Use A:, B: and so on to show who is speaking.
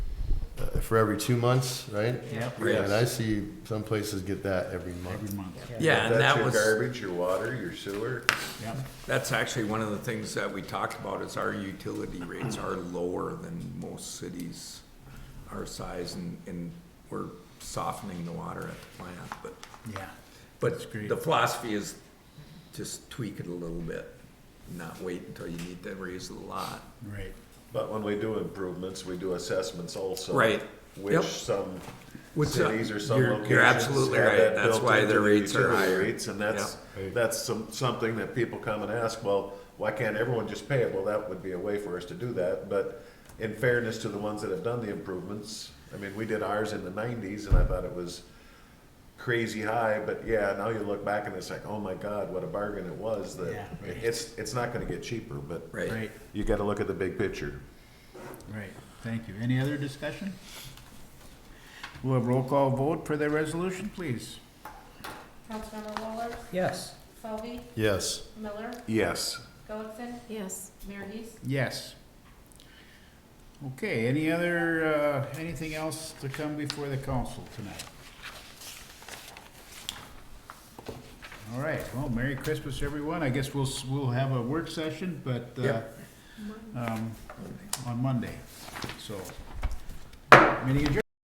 A: for every two months, right?
B: Yep.
A: Yeah, And I
C: Yes.
A: see some places get that every month.
B: Every month,
C: Yeah, and that
D: That's your
C: was,
D: garbage, your water, your sewer.
B: yep.
C: that's actually one of the things that we talked about is our utility rates are lower than most cities our size and, and we're softening the water at the plant, but,
B: Yeah,
C: but
B: great.
C: the philosophy is just tweak it a little bit. Not wait until you need to raise the lot.
B: right.
D: But when we do improvements, we do assessments also.
C: Right. Yep.
D: Which some
C: Which some-
D: cities or some
C: you're- you're
D: locations.
C: absolutely
D: have
C: right.
D: that
C: That's
D: built
C: why
D: into
C: their
D: their
C: rates are
D: utility
C: higher.
D: rates, And that's, that's some, something that people come and ask, well, why can't everyone just pay it? Well, that would be a way for us to do that, but in fairness to the ones that have done the improvements, I mean, we did ours in the nineties and I thought it was crazy high, but yeah, now you look back and it's like, oh my God, what a bargain it was that,
B: Yeah, right.
D: it's, it's not gonna get cheaper, but
C: Right.
B: Right,
D: you gotta look at the big picture.
B: right. Thank you. Any other discussion? We'll have roll call vote for the resolution, please.
E: Councilmember Waller,
F: yes.
E: Selby,
A: Yes.
E: Miller,
D: Yes.
E: Goodson,
G: yes.
E: Mayor Heath.
B: Yes. Okay, any other, uh, anything else to come before the council tonight? All right, well, Merry Christmas, everyone. I guess we'll, s- we'll have a work session, but, uh, um, on Monday, so. Meeting adjourned.